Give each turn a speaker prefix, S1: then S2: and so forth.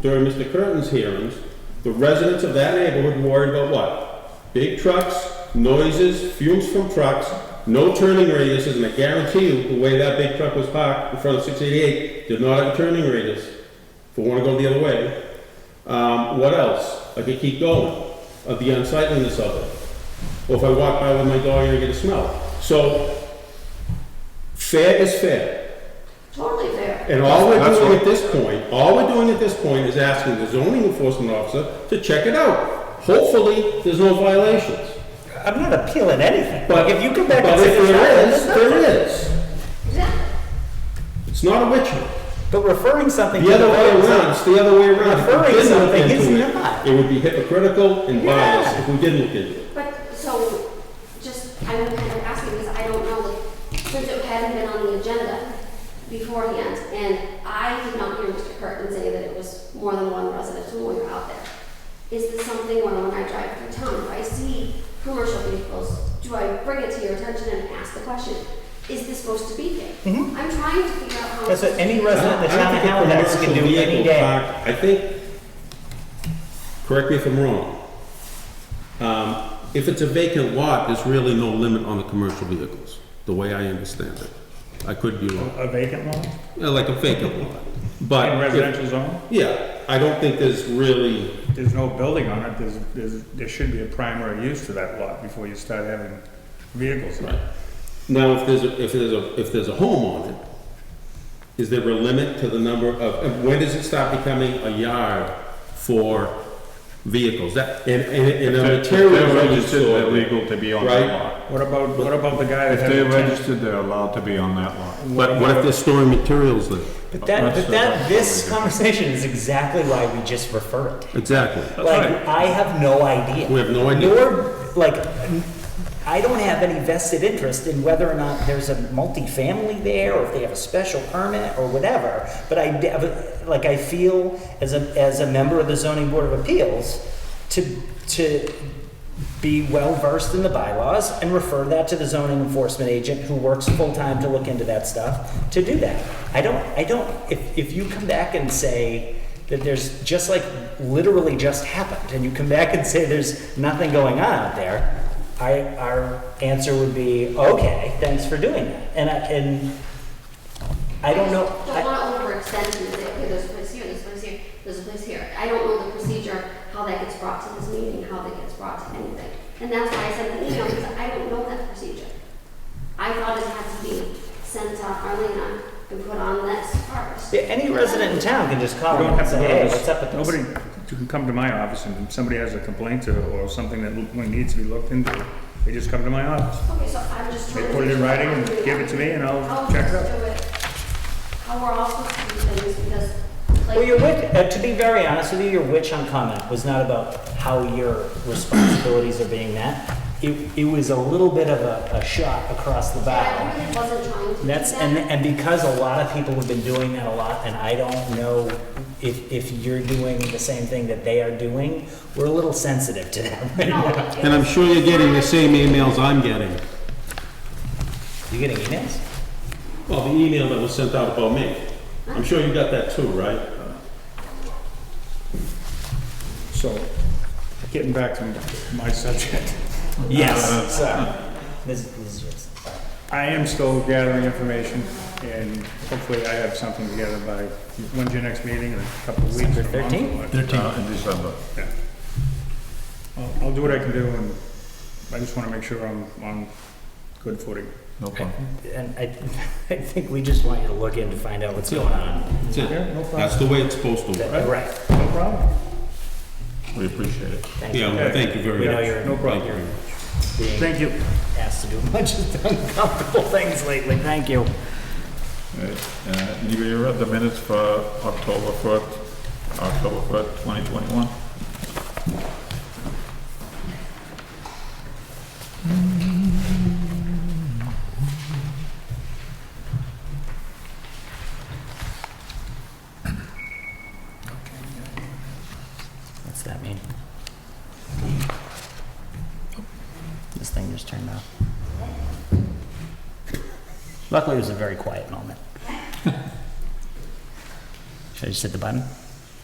S1: during Mr. Curtin's hearings, the residents of that neighborhood worried about what? Big trucks, noises, fumes from trucks, no turning radiuses, and I guarantee you, the way that big truck was parked in front of six eighty-eight did not have a turning radius. If we wanna go the other way. Um, what else? I could keep going, of the unsightliness of it. Or if I walk by with my dog and I get a smell. So, fair is fair.
S2: Totally fair.
S1: And all we're
S3: That's
S1: doing
S3: what-
S1: at this point, all we're doing at this point is asking the zoning enforcement officer to check it out. Hopefully, there's no violations.
S4: I'm not appealing anything.
S1: But-
S4: Like, if you come back
S1: But
S4: and say
S1: if
S4: there's
S1: there is,
S4: nothing, there's nothing.
S1: there is.
S2: Exactly.
S1: It's not a witch hunt.
S4: But referring something to
S1: The other way
S4: voters,
S1: around, it's the other way around. If we
S4: Referring
S1: didn't look
S4: something is
S1: into it,
S4: not.
S1: It would be hypocritical and biased if we didn't look into it.
S2: But, so, just, I'm kind of asking, because I don't know, like, since it hadn't been on the agenda beforehand, and I did not hear Mr. Curtin say that it was more than one resident when we were out there. Is this something where when I drive through town, if I see commercial vehicles, do I bring it to your attention and ask the question, is this supposed to be here? I'm trying to figure out how.
S4: That's
S2: it's
S4: what any
S2: supposed to be.
S4: resident in the
S1: I don't
S4: town
S1: think
S4: of
S1: a
S4: Halifax can
S1: commercial
S4: do any
S1: vehicle
S4: day.
S1: parked- I think, correct me if I'm wrong, um, if it's a vacant lot, there's really no limit on the commercial vehicles, the way I understand it. I could be wrong,
S5: A vacant lot
S1: Yeah, like a vacant lot, but.
S5: in
S1: Uh, if-
S5: residential zone?
S1: Yeah, I don't think there's really,
S5: There's no building on it, there's, there's, there should be a primary use to that lot before you start having vehicles.
S1: right. Now, if there's, a if there's a, if there's a home on it, is there a limit to the number of, and when does it start becoming a yard for vehicles? That, and, and, and a
S3: If
S1: material.
S3: they're
S1: really
S3: registered, they're
S1: stored there.
S3: legal to be on
S1: Right.
S3: that lot.
S5: What about, what about the guy that
S3: If
S5: had
S3: they're
S5: a tent?
S3: registered, they're allowed to be on that lot.
S1: But what if they're storing materials there?
S4: But that,
S3: That's
S4: but
S3: the-
S4: that, this conversation is exactly why we just refer it.
S1: Exactly.
S4: Like, I have no idea.
S1: We have no idea.
S4: Nor, like, I don't have any vested interest in whether or not there's a multifamily there, or if they have a special permit, or whatever. But I, de- like, I feel as a, as a member of the zoning board of appeals to, to be well versed in the bylaws and refer that to the zoning enforcement agent who works full-time to look into that stuff, to do that. I don't, I don't, if, if you come back and say that there's, just like literally just happened, and you come back and say there's nothing going on out there, I, our answer would be, okay, thanks for doing that. And I, and I don't know.
S2: just
S4: I-
S2: Don't wanna overextend and say, okay, there's a place here, there's a place here, there's a place here. I don't know the procedure, how that gets brought to this meeting, how that gets brought to anything. And that's why I sent an email, because I don't know that procedure. I thought it had to be sent to Arlena and put on this first.
S4: Yeah, any resident in town can just
S5: You
S4: call
S5: don't
S4: and
S5: have to
S4: say,
S5: go
S4: hey,
S5: to
S4: what's up with
S5: this,
S4: this?
S5: nobody, you can come to my office and if somebody has a complaint or, or something that lo- needs to be looked into, they just come to my office.
S2: Okay, so I'm just
S5: They
S2: trying to.
S5: put it in writing and give it to me and
S2: How
S5: I'll
S2: we're
S5: check it
S2: supposed
S5: out.
S2: to do it, how we're all supposed to do things, because like.
S4: Well, your witch, uh, to be very honest with you, your witch hunt comment was not about how your responsibilities are being met. It, it was a little bit of a, a shot across the
S2: I
S4: bow.
S2: really wasn't trying to. do
S4: That's,
S2: that.
S4: and, and because a lot of people have been doing that a lot, and I don't know if, if you're doing the same thing that they are doing, we're a little sensitive to that right
S2: No,
S4: now.
S2: it
S1: And I'm
S2: was-
S1: sure you're getting the same emails I'm getting.
S4: You getting emails?
S1: Well, the email that was sent out about me. I'm sure you got that too, right?
S5: So, getting back to my subject.
S4: Yes, sorry. Uh, This, this is,
S5: I am still gathering information, and hopefully I have something together by, when's your next meeting, in a couple of weeks or a month? or what?
S4: 13th?
S3: Uh, In December.
S5: Yeah. I'll, I'll do what I can do, and I just wanna make sure I'm on good footing.
S3: No problem.
S4: and I, I think we just want you to look in to find out what's going on.
S1: That's
S5: Yeah,
S1: it.
S5: no problem.
S1: That's the way it's supposed to work.
S4: Right.
S5: No problem.
S3: We appreciate it.
S4: Thank you.
S1: Yeah, well, thank you very much.
S4: We know you're,
S5: No problem.
S4: you're being
S5: Thank you.
S4: asked to do a bunch of uncomfortable things lately. Thank you.
S3: Right, uh, Anybody read the minutes for October 1st, October 1st, 2021?
S4: What's that mean? This thing just turned off. Luckily, it was a very quiet moment. Should I just hit the button?